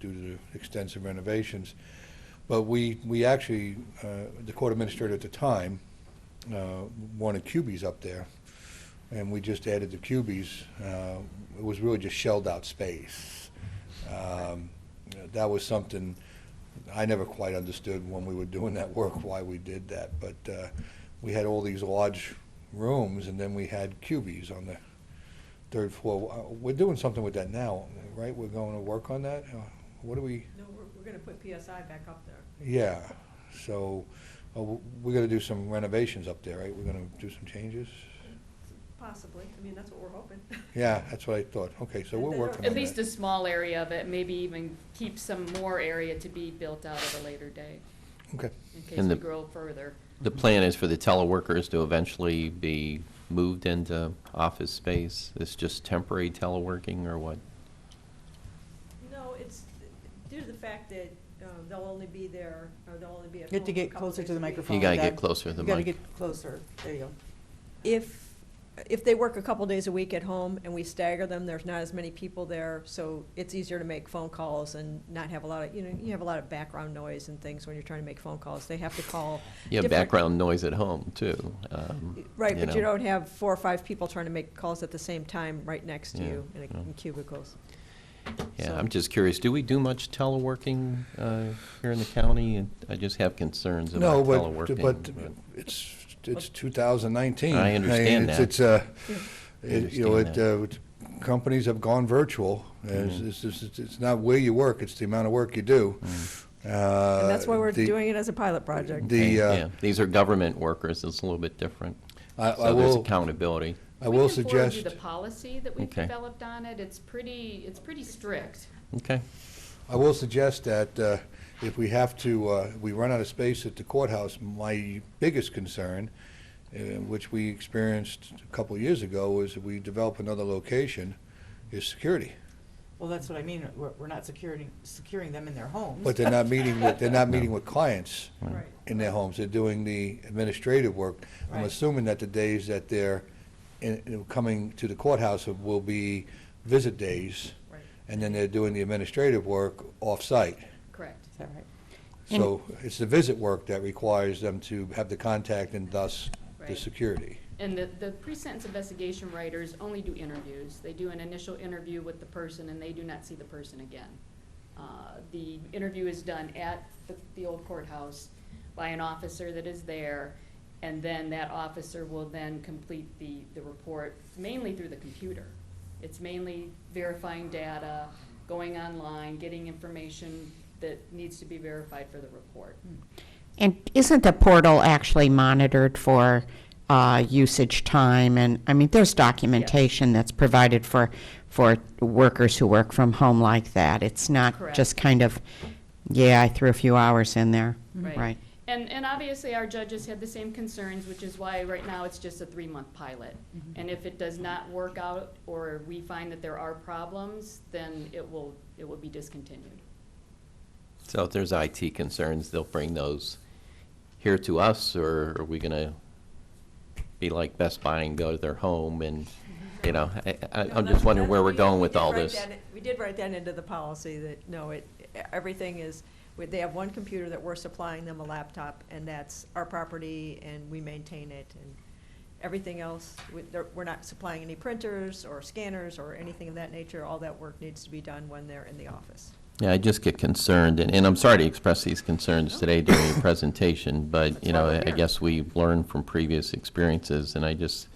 due to the extensive renovations. But we, we actually, uh, the court administrator at the time uh, wanted cubies up there, and we just added the cubies. Uh, It was really just shelled out space. Um, That was something I never quite understood when we were doing that work, why we did that. But uh, we had all these large rooms, and then we had cubies on the third floor. Uh, We're doing something with that now, right? We're going to work on that? Uh, What do we? No, we're, we're gonna put PSI back up there. Yeah, so uh, w- we're going to do some renovations up there, right? We're going to do some changes? Possibly, I mean, that's what we're hoping. Yeah, that's what I thought. Okay, so we're At working on that. At least a small area of it, maybe even keep some more area to be built out at a later date, Okay, in case And we the- grow further. The plan is for the teleworkers to eventually be moved into office space? It's just temporary teleworking or what? No, it's due to the fact that, um, they'll only be there, or they'll only be at You home. have to a get couple closer days to the a week. microphone. gotta get Doug. closer to the You gotta mic. get closer, there you go. If, if they work a couple days a week at home and we stagger them, there's not as many people there, so it's easier to make phone calls and not have a lot of, you know, you have a lot of background noise and things when you're trying to make phone calls. They have to call. Yeah, different- background noise at home, too. um, Right, but you know. don't have four or five people trying to make calls at the same time right next to Yeah, you in a- yeah. in cubicles. Yeah, so- I'm just curious, do we do much teleworking uh, here in the county? And I just have concerns no, about but, teleworking. but it's, it's 2019. I understand it's- that. It's, uh, I it- you know, it, understand uh, it's- companies have gone virtual. It's, Mhm. it's- it's, it's not where you work, it's the amount of work you do. Mm. Uh, Uh, And that's why we're doing it as a pilot project. The, Okay, uh, yeah. These are government workers, it's a little bit different. I I So there's will, accountability. I will We can forward you suggest, the policy that we've Okay. developed on it, it's pretty, it's pretty strict. Okay, I will suggest that uh, if we have to, uh, we run out of space at the courthouse, my biggest concern, uh, which we experienced a couple years ago, is if we develop another location, is security. Well, that's what I mean, we're, we're not securing, securing them in their homes. But they're not meeting with, they're not meeting with clients Right. in their homes. They're doing the administrative work. I'm Right. assuming that the days that they're in- in- coming to the courthouse will be visit days, Right, and then they're doing the administrative work off-site. Correct. Is that right? So it's the visit work that requires them to have the contact and thus the Right. security. And the, the pre-sentence investigation writers only do interviews. They do an initial interview with the person, and they do not see the person again. Uh, The interview is done at the, the old courthouse by an officer that is there, and then that officer will then complete the, the report mainly through the computer. It's mainly verifying data, going online, getting information that needs to be verified for the report. And isn't the portal actually monitored for uh, usage time? And, I mean, there's documentation that's provided for, for workers who work from home like that. It's not Correct. just kind of, yeah, I threw a few hours in there. Right. And, and obviously, our judges had the same concerns, which is why right now it's just a three-month pilot. Mm-hmm. And if it does not work out, or we find that there are problems, then it will, it will be discontinued. so if there's IT concerns, they'll bring those here to us, or are we going to be like Best Buy and go to their home and, you know, I- No, I- I'm that's- just wondering where that's- we're we- going we with did all write this. that- We did write that into the policy that, no, it, everything is, we- they have one computer that we're supplying them a laptop, and that's our property, and we maintain it, and everything else, we- they're- we're not supplying any printers or scanners or anything of that nature. All that work needs to be done when they're in the office. Yeah, I just get concerned, and, and I'm sorry to express these concerns today during your presentation, but, That's you why know, we're I I here. guess we learn from previous experiences, and I just,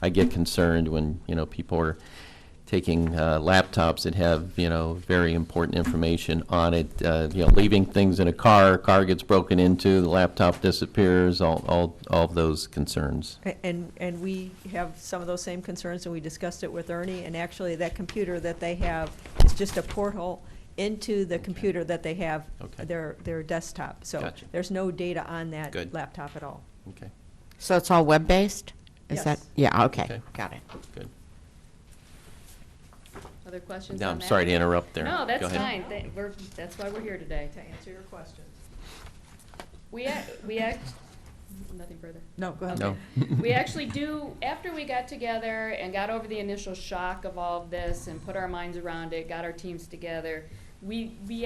I get concerned when, you know, people are taking uh, laptops that have, you know, very important information on it, uh, you know, leaving things in a car, car gets broken into, the laptop disappears, all, all, all of those concerns. A- And, and we have some of those same concerns, and we discussed it with Ernie, and actually, that computer that they have is just a portal into the computer that they have, Okay. their, their desktop. So Gotcha. there's no data on that Good. laptop at all. Okay, So it's all web-based? Is that, Yes. yeah, Okay. okay, got it. good. Other questions Now, on I'm that? sorry to interrupt there. No, Go that's ahead. fine. Th- we're- that's why we're here today. To answer your question. We, ac- we act, nothing further. No, go ahead. No. we actually do, after we got together and got over the initial shock of all of this and put our minds around it, got our teams together, we, we